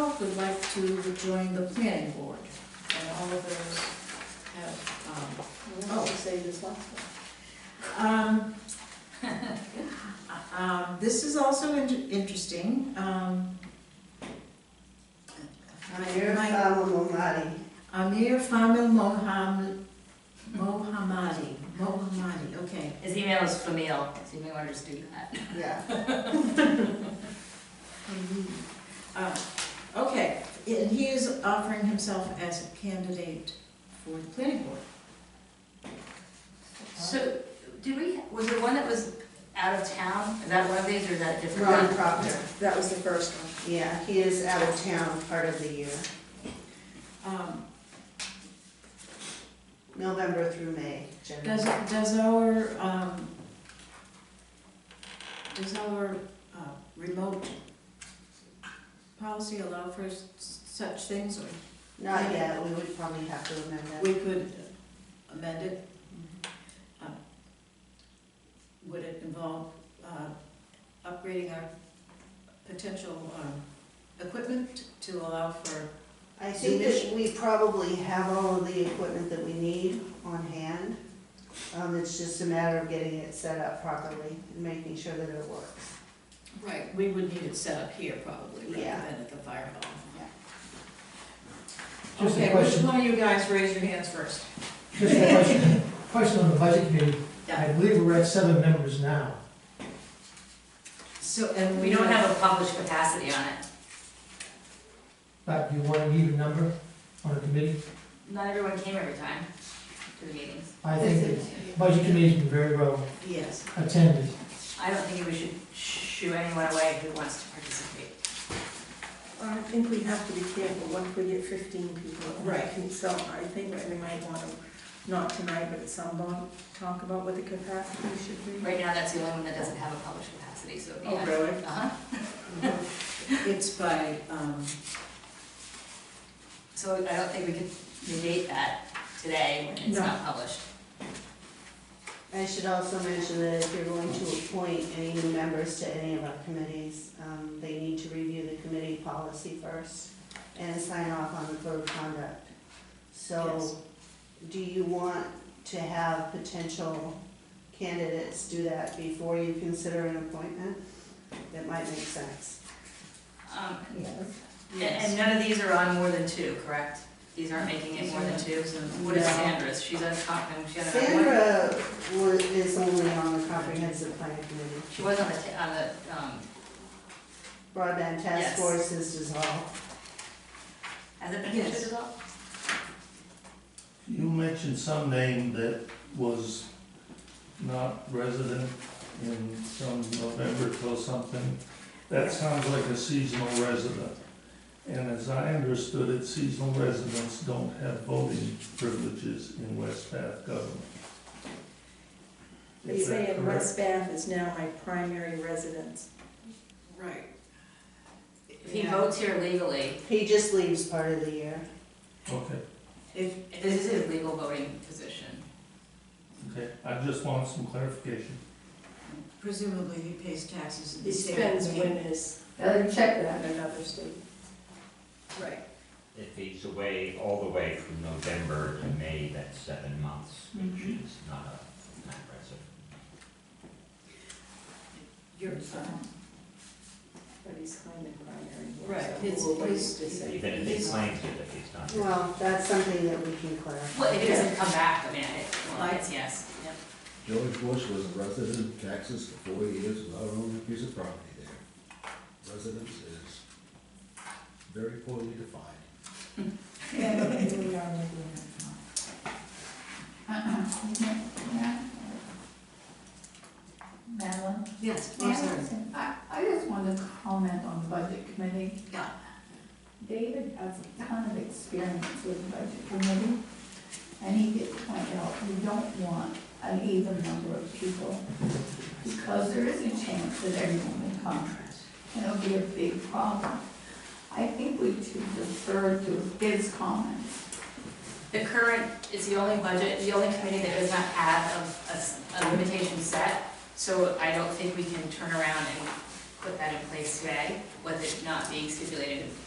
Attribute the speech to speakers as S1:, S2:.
S1: would like to join the planning board, and all of those have, um,
S2: What did you say this last one?
S1: Um, um, this is also in- interesting, um.
S2: Mayor
S1: my-
S2: Fama Mamadi.
S1: Amir Famil Moham, Mohammadi, Mohammadi, okay.
S3: His email is Famil, so you may want to just do that.
S2: Yeah.
S1: Uh, Okay, and he is offering himself as a candidate for the planning board.
S3: So, did we, was there one that was out of town? Is that one of these or is that a different?
S2: Ron
S3: one?
S2: Proctor.
S4: That was the first one.
S2: Yeah, he is out of town part of the year,
S1: Um,
S2: November through May. generally.
S1: Does, does our, um, does our uh, remote policy allow for s- such things, or
S2: Not yet, we would probably have to amend that.
S1: we could amend it? Uh, Would it involve uh, upgrading our potential um, equipment to allow for,
S2: I think that we probably have all of the equipment that we need on hand. Um, it's just a matter of getting it set up properly and making sure that it works.
S1: right, we would need it set up here probably,
S2: Yeah.
S1: rather than at the fire hall.
S5: Just a
S1: Okay, which
S5: question,
S1: one of you guys raise your hands first?
S5: just a question, question on the budget committee.
S1: Yeah.
S5: I believe we're at seven members now.
S1: So, uh, and
S3: We don't have a published capacity on it.
S5: But do you want to leave a number on a committee?
S3: Not everyone came every time to the meetings.
S5: I think the budget committee's been very well
S1: Yes.
S5: attended.
S3: I don't think we should shoo anyone away who wants to participate.
S4: I think we have to be careful, what if we get fifteen people?
S1: Right.
S4: So I think that we might want to, not tonight, but at some point, talk about what the capacity should be.
S3: Right now, that's the only one that doesn't have a published capacity, so.
S1: Oh, really?
S3: Uh-huh.
S1: It's by, um,
S3: So I don't think we could negate that today when it's
S4: No.
S3: not published.
S2: I should also mention that if you're going to appoint any new members to any of our committees, um, they need to review the committee policy first and sign off on the code of conduct.
S1: Yes.
S2: So, do you want to have potential candidates do that before you consider an appointment? That might make sense.
S3: Um, and-
S1: yes.
S3: And none of these are on more than two, correct? These aren't making it more than two? What is
S2: No.
S3: Sandra's? She's on top, and she had a one.
S2: Sandra was, is only on the comprehensive plan committee.
S3: She was on the, ta- on the, um,
S2: Broadband task
S3: Yes.
S2: force is dissolved.
S3: has it been
S1: Yes.
S3: considered at all?
S6: You mentioned some name that was not resident in some November till something. That sounds like a seasonal resident. And as I understood it, seasonal residents don't have voting privileges in West Bath government.
S4: They
S6: Is that
S4: say in
S6: correct?
S4: West Bath is now my primary residence.
S1: Right.
S3: If he votes here legally,
S2: He just leaves part of the year.
S6: Okay,
S1: If,
S3: this is his legal voting position.
S6: okay. I just want some clarification.
S1: presumably he pays taxes in
S4: He
S1: the state.
S4: spends winners. check that. In another state.
S1: Right.
S7: If he's away, all the way from November to May, that's seven months, which is not a full-time resident.
S1: You're, um,
S4: But he's claiming primary. here,
S1: Right,
S4: so
S1: his-
S4: we'll wait
S1: his-
S4: to see.
S7: Even if he claims it, if he's not.
S2: Well, that's something that we can clarify.
S3: Well, if it doesn't come back, I mean, it, well, it's yes. Yep.
S8: George Bush was a resident of Texas for four years without owning a piece of property there. Residence is very poorly defined.
S9: Uh-huh. Madeline?
S1: yes, I'm Oh, sorry.
S9: I, I just wanted to comment on the budget committee.
S1: Yeah.
S9: David has a ton of experience with the budget committee, and he did point out, we don't want an even number of people, because there is a chance that everyone will come, and it'll be a big problem. I think we should defer to his comments.
S3: The current, it's the only budget, the only committee that does not have a- a, s- a limitation set, so I don't think we can turn around and put that in place today, with it not being stipulated in